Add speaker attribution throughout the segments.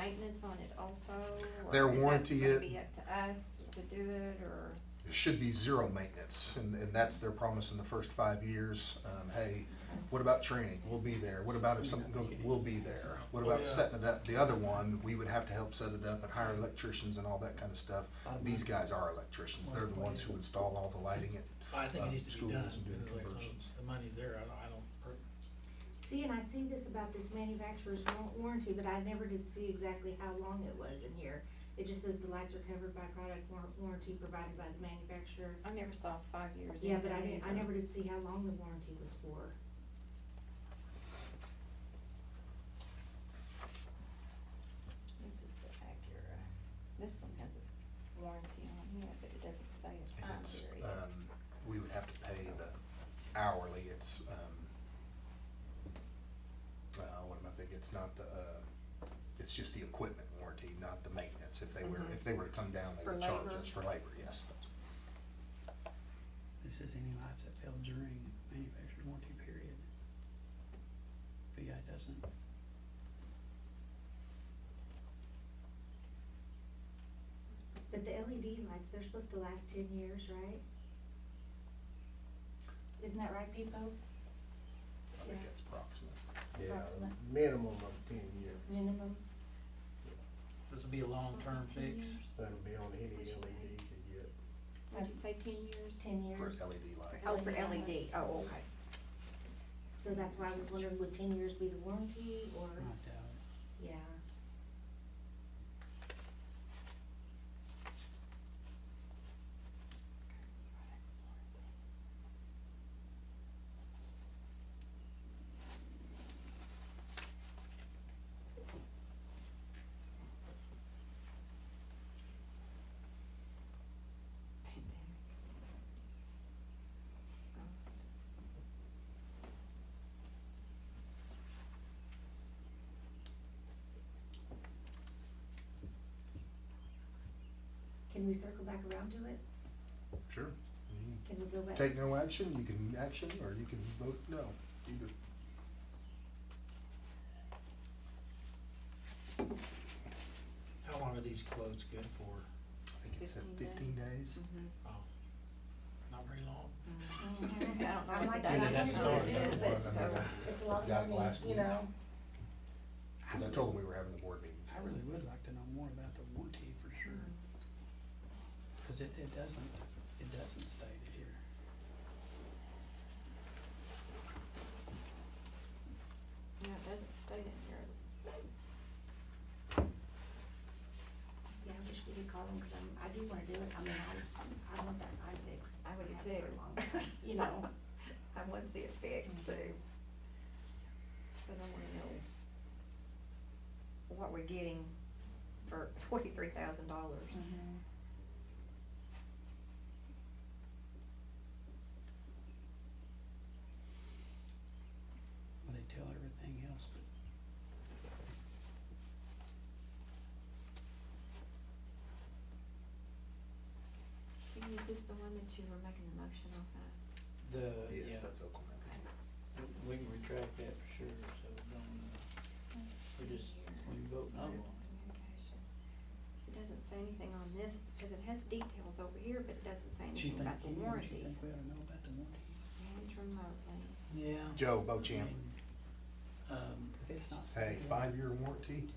Speaker 1: maintenance on it also? or
Speaker 2: Their
Speaker 1: is that
Speaker 2: warranty
Speaker 1: gonna
Speaker 2: it-
Speaker 1: Be up to us to do it, or,
Speaker 2: It should be zero maintenance, and, and that's their promise in the first five years. Um, hey, what about training? We'll be there. What about if something goes, we'll be there. What about
Speaker 3: Yeah.
Speaker 2: setting it up? The other one, we would have to help set it up and hire electricians and all that kind of stuff.
Speaker 4: Mm-hmm.
Speaker 2: These guys are electricians. They're the ones who install all the lighting and
Speaker 3: I think
Speaker 2: uh,
Speaker 3: it needs to
Speaker 2: schools
Speaker 3: be done,
Speaker 2: and doing
Speaker 3: because like,
Speaker 2: conversions.
Speaker 3: the money's there, I don't, I don't, per-
Speaker 5: See, and I see this about this manufacturer's wa- warranty, but I never did see exactly how long it was in here. It just says the lights are covered by product war- warranty provided by the manufacturer.
Speaker 1: I never saw five years.
Speaker 5: Yeah,
Speaker 1: in
Speaker 5: but I
Speaker 1: there
Speaker 5: didn't, I
Speaker 1: either.
Speaker 5: never did see how long the warranty was for.
Speaker 1: This is the Acura. This one has a warranty on it, but it doesn't say a
Speaker 2: And
Speaker 1: time
Speaker 2: it's,
Speaker 1: period.
Speaker 2: um, we would have to pay the hourly, it's, um, uh, what am I thinking, it's not the, uh, it's just the equipment warranty, not the maintenance, if they were,
Speaker 1: Mhm.
Speaker 2: if they were to come down, they
Speaker 1: For
Speaker 2: would charge
Speaker 1: labor.
Speaker 2: us for labor, yes, that's.
Speaker 4: This is any lights that fail during manufacturer's warranty period. VI doesn't.
Speaker 5: But the LED lights, they're supposed to last ten years, right? Isn't that right, Pipo?
Speaker 2: I think
Speaker 5: Yeah.
Speaker 2: that's approximate.
Speaker 6: Yeah,
Speaker 5: Approximate.
Speaker 6: minimum of ten years,
Speaker 5: Minimum.
Speaker 3: this would be a long-term
Speaker 1: It's 10
Speaker 3: fix.
Speaker 1: years.
Speaker 6: that'll be on any E LED to get.
Speaker 1: Would you say ten years?
Speaker 5: Ten years.
Speaker 2: For E LED lights,
Speaker 5: Oh, for LED,
Speaker 1: oh, okay.
Speaker 5: So that's why I was wondering, would ten years be the warranty or,
Speaker 4: I doubt it.
Speaker 5: yeah. Can we circle back around to it?
Speaker 2: sure. You
Speaker 5: Can we go
Speaker 2: can
Speaker 5: back?
Speaker 2: Take no action, you can action, or you can vote no, either.
Speaker 3: How long are these quotes good for?
Speaker 2: I think it said
Speaker 1: 15
Speaker 2: fifteen days.
Speaker 1: Mm-hmm.
Speaker 3: Oh, not very long.
Speaker 5: Mhm.
Speaker 1: I don't know
Speaker 5: I
Speaker 1: what
Speaker 5: like
Speaker 1: the
Speaker 5: that.
Speaker 1: date
Speaker 5: I
Speaker 1: is.
Speaker 5: don't know what it
Speaker 2: Well,
Speaker 5: is, but
Speaker 2: I mean,
Speaker 5: so it's a lot
Speaker 2: Got
Speaker 5: of
Speaker 2: it
Speaker 5: money,
Speaker 2: last
Speaker 5: you
Speaker 2: week.
Speaker 5: know.
Speaker 2: Cause I told them we were having the board meeting.
Speaker 4: I really would like to know more about the warranty for sure. Cause it, it doesn't, it doesn't state it here.
Speaker 1: No, it doesn't state in here.
Speaker 5: Yeah, I wish we could call them, cause I'm, I do wanna do it, I mean, I, I want that sign fixed.
Speaker 1: I would
Speaker 5: have
Speaker 1: too.
Speaker 5: for a long time, You know,
Speaker 1: I want to see it fixed too. But I wanna know what we're getting for forty-three thousand dollars.
Speaker 4: Well, they tell everything else, but
Speaker 1: Is this the one that you were making the motion off of?
Speaker 7: The, yeah,
Speaker 2: Yes, that's Oklahoma.
Speaker 7: we can retract that for sure, so don't, uh, we just, we can vote no on it.
Speaker 1: Communication. It doesn't say anything on this, because it has details over here, but it doesn't say
Speaker 4: she
Speaker 1: anything
Speaker 4: think,
Speaker 1: about the
Speaker 4: you know, she think
Speaker 1: warranties.
Speaker 4: we ought to know about the warranties.
Speaker 1: Manage remotely.
Speaker 7: Yeah.
Speaker 2: Joe Bochamp,
Speaker 7: Um,
Speaker 4: If it's not
Speaker 2: Oh, hey,
Speaker 4: stated.
Speaker 2: five-year warranty?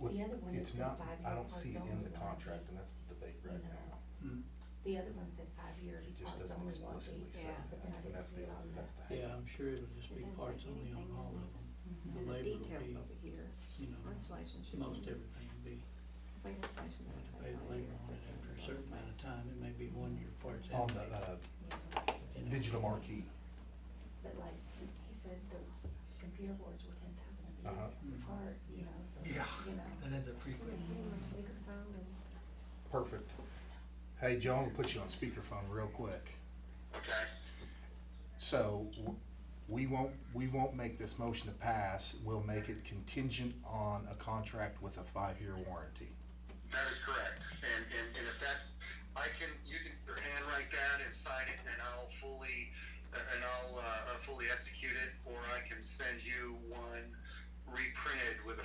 Speaker 2: Well,
Speaker 5: The other one
Speaker 2: it's
Speaker 5: that said
Speaker 2: not,
Speaker 5: five
Speaker 2: I
Speaker 5: year
Speaker 2: don't see it in
Speaker 5: parts
Speaker 2: the
Speaker 5: only
Speaker 2: contract,
Speaker 5: warranty.
Speaker 2: and that's the debate right
Speaker 5: No.
Speaker 2: now.
Speaker 4: Hmm.
Speaker 5: the other one said five years,
Speaker 2: It just
Speaker 5: parts
Speaker 2: doesn't
Speaker 5: only warranty.
Speaker 2: explicitly say
Speaker 1: yeah,
Speaker 2: that,
Speaker 5: but then I
Speaker 2: and
Speaker 5: didn't
Speaker 2: that's
Speaker 5: see
Speaker 2: the,
Speaker 5: it on
Speaker 2: that's the.
Speaker 7: yeah, I'm sure it'll just be
Speaker 1: It doesn't
Speaker 7: parts
Speaker 1: say
Speaker 7: only on all
Speaker 1: anything on
Speaker 7: of them,
Speaker 1: this.
Speaker 4: Mhm.
Speaker 1: And the
Speaker 7: labor would
Speaker 1: details
Speaker 7: be-
Speaker 1: over here,
Speaker 7: you know, most
Speaker 1: insulation should be.
Speaker 7: everything will be,
Speaker 1: Labor station.
Speaker 7: you have to
Speaker 1: that
Speaker 7: pay the
Speaker 1: place on here,
Speaker 7: labor on it after a
Speaker 1: doesn't replace.
Speaker 7: certain amount of time, it may be one year parts.
Speaker 2: On
Speaker 7: after
Speaker 2: the,
Speaker 7: that,
Speaker 2: uh,
Speaker 7: you know.
Speaker 2: digital marquee,
Speaker 5: But like, he said those computer boards were ten thousand a
Speaker 2: Uh-huh.
Speaker 5: piece
Speaker 3: Mhm.
Speaker 5: apart, you know, so, you know.
Speaker 3: Yeah. That ends up pretty
Speaker 5: Put
Speaker 3: quick.
Speaker 5: him on speakerphone and-
Speaker 2: perfect. Hey, Joe, I'm gonna put you on speakerphone real quick.
Speaker 8: Okay,
Speaker 2: So, w- we won't, we won't make this motion to pass, we'll make it contingent on a contract with a five-year warranty.
Speaker 8: that is correct. And, and, and if that's, I can, you can handwrite that and sign it and I'll fully, and I'll, uh, fully execute it, or I can send you one reprinted with